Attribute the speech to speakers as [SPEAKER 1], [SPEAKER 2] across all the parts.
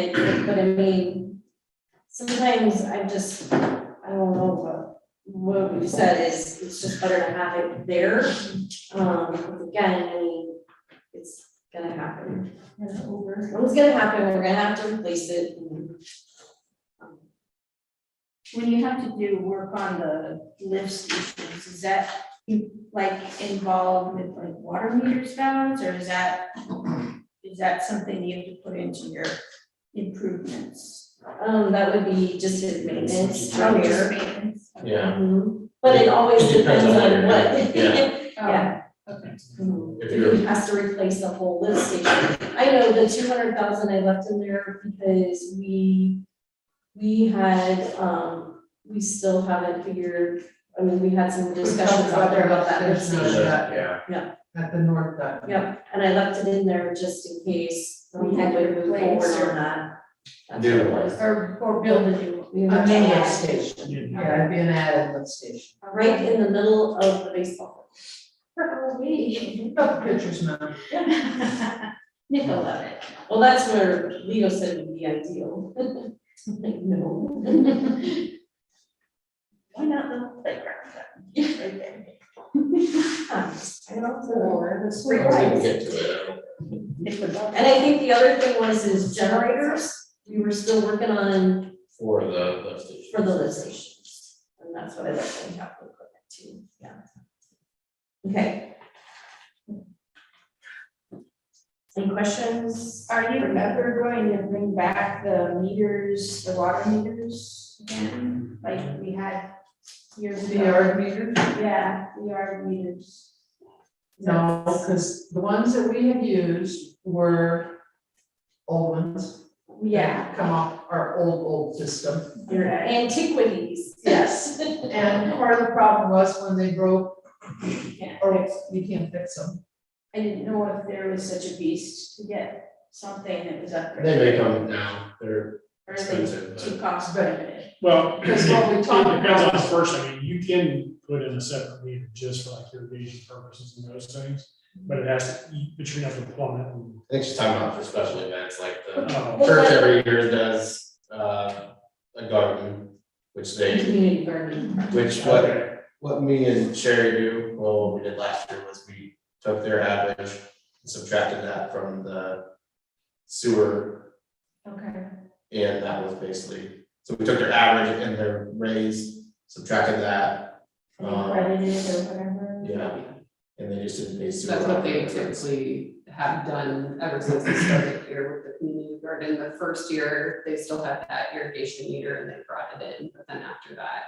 [SPEAKER 1] it, but I mean, sometimes I'm just, I don't know, but what we've said is, it's just better to have it there. Um, because again, I mean, it's gonna happen. It's gonna happen, we're gonna have to replace it. and, um,
[SPEAKER 2] When you have to do work on the lift stations, is that like involved with like water meters balance or is that? Is that something you have to put into your improvements?
[SPEAKER 1] Um, that would be just his maintenance.
[SPEAKER 2] Oh,
[SPEAKER 1] from
[SPEAKER 2] your
[SPEAKER 1] here.
[SPEAKER 2] maintenance.
[SPEAKER 3] Yeah,
[SPEAKER 1] Mhm. But it always
[SPEAKER 3] It depends
[SPEAKER 1] depends
[SPEAKER 3] on
[SPEAKER 1] on
[SPEAKER 3] what
[SPEAKER 1] what.
[SPEAKER 3] you're doing,
[SPEAKER 1] Yeah.
[SPEAKER 2] Okay.
[SPEAKER 1] Mhm.
[SPEAKER 3] If
[SPEAKER 1] If he has to replace the whole lift station. I know the two hundred thousand I left in there because we, we had, um, we still haven't figured, I mean, we had some discussions out there about that lift
[SPEAKER 4] There's no
[SPEAKER 1] station.
[SPEAKER 4] shut
[SPEAKER 3] yeah,
[SPEAKER 4] At the north end.
[SPEAKER 1] Yeah, and I left it in there just in case we had to move forward
[SPEAKER 2] Replace or-
[SPEAKER 1] on that. That's
[SPEAKER 3] Do
[SPEAKER 1] what it
[SPEAKER 3] one.
[SPEAKER 1] was.
[SPEAKER 2] Or or build a new
[SPEAKER 1] We
[SPEAKER 4] A
[SPEAKER 1] would-
[SPEAKER 4] main lift station, yeah, it'd be an added lift station.
[SPEAKER 2] one.
[SPEAKER 1] Right in the middle of the baseball.
[SPEAKER 2] Probably.
[SPEAKER 4] You've got the pictures now.
[SPEAKER 2] Nickel of it.
[SPEAKER 1] field. Well, that's where Leo said would be ideal. Like, no.
[SPEAKER 2] Why not the playground? Right there.
[SPEAKER 1] I don't know.
[SPEAKER 3] I was gonna get to it, I don't-
[SPEAKER 2] Nickel of
[SPEAKER 1] And
[SPEAKER 2] it.
[SPEAKER 1] I think the other thing was is generators, we were still working on
[SPEAKER 3] for the lift station.
[SPEAKER 1] for the lift stations. And that's what I left in capital equipment too, yeah. Okay. Any questions?
[SPEAKER 2] Are you ever going to bring back the meters, the water meters again, like we had years
[SPEAKER 4] The
[SPEAKER 2] ago?
[SPEAKER 4] yard meter?
[SPEAKER 2] Yeah, the yard meters.
[SPEAKER 4] No, because the ones that we have used were old ones.
[SPEAKER 2] Yeah,
[SPEAKER 4] Come off our old, old system.
[SPEAKER 1] Your antiquities.
[SPEAKER 4] Yes. And part of the problem was when they broke,
[SPEAKER 2] yeah.
[SPEAKER 4] or we can't fix them.
[SPEAKER 2] I didn't know if there was such a beast to get something that was up
[SPEAKER 3] They
[SPEAKER 2] there,
[SPEAKER 3] may come now, they're
[SPEAKER 2] or is it
[SPEAKER 3] expensive, but.
[SPEAKER 2] too cost prohibitive?
[SPEAKER 5] Well, it
[SPEAKER 4] Because what we
[SPEAKER 5] depends
[SPEAKER 4] talked
[SPEAKER 5] on the
[SPEAKER 4] about,
[SPEAKER 5] person, I mean, you can put in a separate meter just for like irrigation purposes and those things, but it has to, you- but you have to plumb it. and-
[SPEAKER 3] I think she's talking about for special events, like the
[SPEAKER 5] Oh,
[SPEAKER 3] church every year does, uh, a garden, which they,
[SPEAKER 1] Community garden.
[SPEAKER 3] which what,
[SPEAKER 5] okay.
[SPEAKER 3] what me and Sherry do, well, what we did last year was we took their average, and subtracted that from the sewer,
[SPEAKER 2] Okay.
[SPEAKER 3] and that was basically, so we took their average and their raise, subtracted that, um,
[SPEAKER 2] And then credited or whatever.
[SPEAKER 3] Uh, yeah, and they just didn't pay sewer.
[SPEAKER 6] That's what they typically have done ever since they started here with the community garden. The first year, they still had that irrigation meter and they brought it in, but then after that,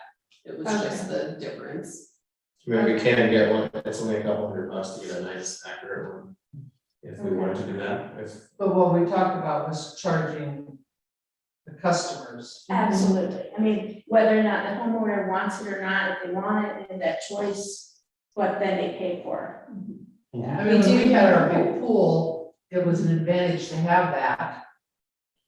[SPEAKER 6] it was just the difference.
[SPEAKER 3] Maybe we can get one, it's only a couple hundred bucks to get a nice accurate one. If we wanted to do that, if,
[SPEAKER 4] but what we talked about was charging the customers.
[SPEAKER 2] Absolutely, I mean, whether or not the homeowner wants it or not, if they want it, they have that choice, but then they pay for
[SPEAKER 4] I mean, when we had our big pool, it was an advantage to have that.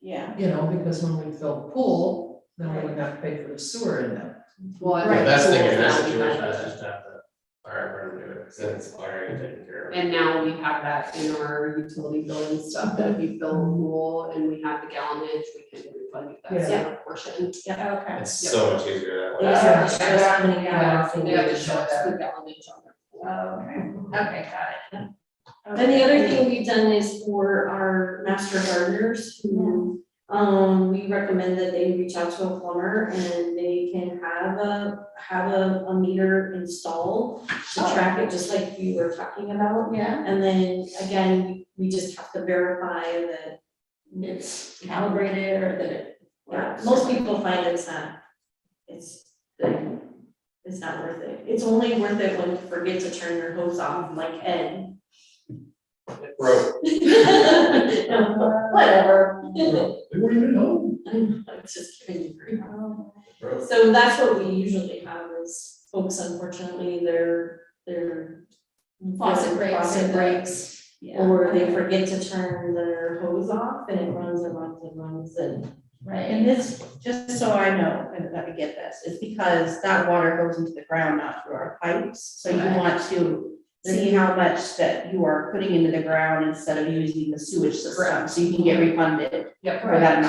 [SPEAKER 2] it, yeah.
[SPEAKER 4] You know, because when we filled the pool, then we wouldn't have to pay for the sewer in them.
[SPEAKER 6] Well,
[SPEAKER 3] the
[SPEAKER 6] I think
[SPEAKER 3] best thing in that
[SPEAKER 6] now we have
[SPEAKER 3] situation is
[SPEAKER 6] the-
[SPEAKER 3] just have the fire department do it, since it's already taken care of.
[SPEAKER 6] And now we have that in our utility billing stuff, that if you fill a pool and we have the gallonage, we can refund that separate portion.
[SPEAKER 2] Okay.
[SPEAKER 3] It's so much easier
[SPEAKER 1] They
[SPEAKER 3] that way.
[SPEAKER 1] have to show us how many
[SPEAKER 4] Yeah.
[SPEAKER 1] hours.
[SPEAKER 6] They have to show us the gallonage on their pool.
[SPEAKER 1] Um,
[SPEAKER 2] Okay, okay, got it.
[SPEAKER 1] Then the other thing we've done is for our master gardeners who, um, we recommend that they reach out to a plumber and they can have a, have a, a meter installed to
[SPEAKER 2] Oh.
[SPEAKER 1] track it, just like you were talking about.
[SPEAKER 2] Yeah.
[SPEAKER 1] And then again, we just have to verify that,
[SPEAKER 2] It's calibrated or that it.
[SPEAKER 1] yeah, most people find it's not, it's, it's not worth it. It's only worth it when you forget to turn your hose off like Ed.
[SPEAKER 3] Bro,
[SPEAKER 1] No, Whatever.
[SPEAKER 3] bro, they weren't even home.
[SPEAKER 1] I'm I'm just kidding.
[SPEAKER 2] Oh,
[SPEAKER 3] Bro.
[SPEAKER 1] So that's what we usually have is folks unfortunately, their, their.
[SPEAKER 2] Faucet breaks.
[SPEAKER 1] Faucet breaks,
[SPEAKER 2] yeah.
[SPEAKER 1] or they forget to turn their hose off and it runs and runs and runs and.
[SPEAKER 2] Right,
[SPEAKER 7] And this, just so I know, and that we get this, is because that water goes into the ground, not through our pipes. So you
[SPEAKER 2] Correct.
[SPEAKER 7] want to see how much that you are putting into the ground instead of using the sewage system,
[SPEAKER 6] Correct.
[SPEAKER 7] so you can get refunded
[SPEAKER 6] Yep.
[SPEAKER 7] for that amount.